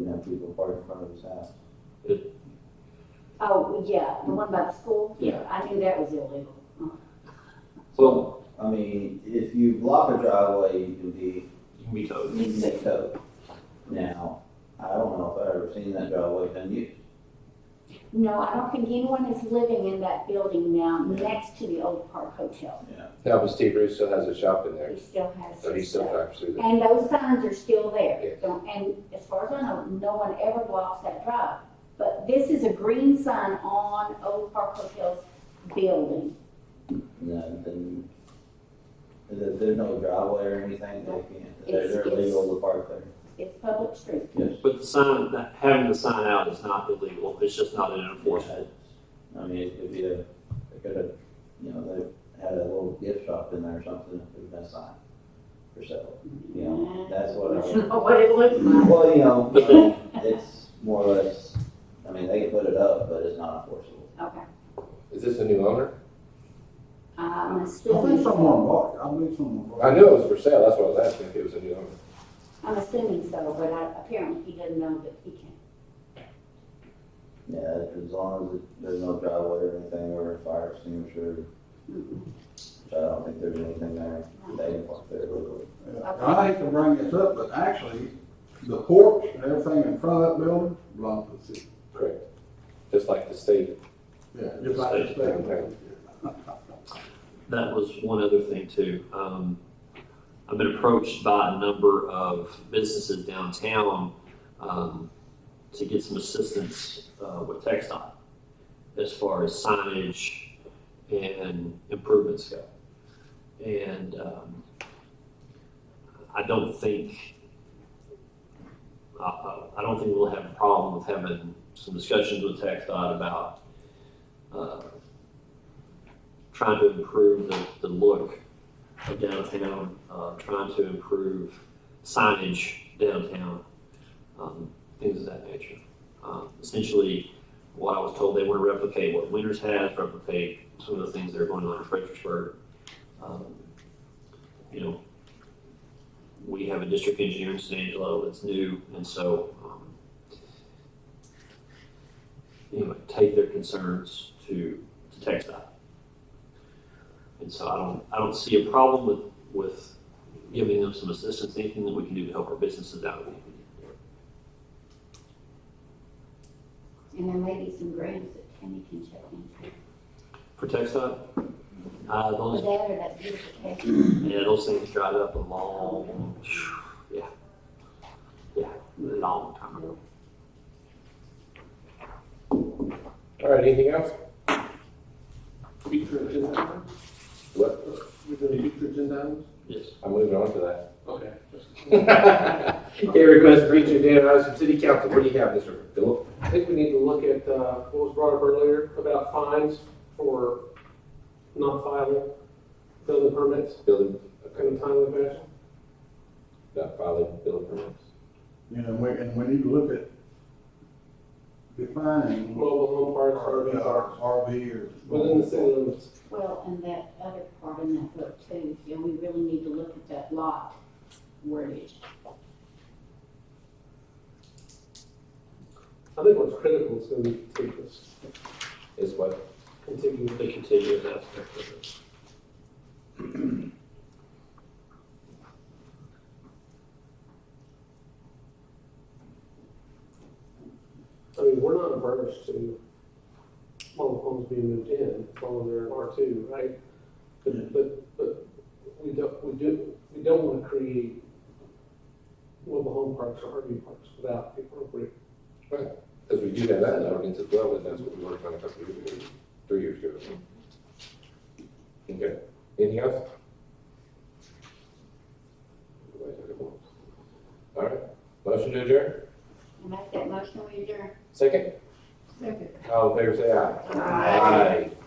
the part in front of his house. Oh, yeah, the one by the school? Yeah. I knew that was illegal. Well, I mean, if you block a driveway, you can be, you can be towed. you can be towed. Now, I don't know if I've ever seen that driveway done used. No, I don't think anyone is living in that building now, next to the old Park Hotel. No, but Steve Bruce still has a shop in there, He still has so he his still stuff. drives through there. And those signs are still there. Yes. Don't- And as far as I know, no one ever blocks that drive. But this is a green sign on Old Park Hotel's building. No, then, there, there's no driveway or anything, they can't, they're, It's- they're it's- illegal to park there. It's public street. Yes. But the sign, that- having the sign out is not illegal, it's just not an enforcement. I mean, it could be a, they could have, you know, they had a little gift shop in there or something, it could have been signed for sale. You know, that's what I. That's not what it looks like. Well, you know, I mean, it's more or less, I mean, they can put it up, but it's not enforceable. Okay. Is this a new owner? I'm I think assuming, someone so. bought it, I believe someone bought it. I knew it was for sale, that's why I was asking if it was a new owner. I'm assuming so, but I- apparently he doesn't know that he can. Yeah, as long as it- there's no driveway or anything or a fire extinguisher, Mm-mm. which I don't think there's anything there, they can park there legally. Yeah, I hate to bring this up, but actually, the porch and everything in front of that building belongs to the city. Correct. Just like the state. Yeah, just like the Okay. state. That was one other thing too. Um, I've been approached by a number of businesses downtown um, to get some assistance uh, with textile as far as signage and improvements go. And um, I don't think I- I, I don't think we'll have a problem with having some discussions with textile about uh, trying to improve the, the look of downtown, uh, trying to improve signage downtown, um, things of that nature. Um, essentially, what I was told, they want to replicate what Winters has, replicate some of the things that are going on in Fredericksburg. Um, you know, we have a district engineer in San Angelo that's new, and so um, anyway, take their concerns to to text and so I don't, I don't see a problem with, with giving them some assistance, anything that we can do to help our businesses out. And there may be some grants that Tammy can check into. For TechStop, uh, Or those, that or that beautification. yeah, those things dried up a long, yeah. Yeah, long time ago. All right, anything else? Future agenda items? What? We do future agenda items? Yes. I'm moving on to that. Okay. Okay, request for each agenda items from city council. What do you have, Mr. Philip? I think we need to look at uh, what was brought up earlier about fines for not filing building permits Building, in a timely fashion. not filing building permits. You know, we, and we need to look at defining Mobile home parks are RV, or RV or. within the city limits. Well, and that other part in that book too, you know, we really need to look at that lot wordage. I think what's critical is going to be contiguous, Is what, contiguous. The contiguous aspect of it. I mean, we're not averse to mobile homes being moved in, as long as they're in R two, right? Yeah. But, but, but we don't, we do, we don't want to create mobile home parks or RV parks without the appropriate because we do have that in our ordinance as well, and that's what we worked on a couple of years ago, three years ago. Okay, anything else? All right, motion to adjourn? And make that motion, we adjourn. Second? Second. All in favor, say aye. Aye.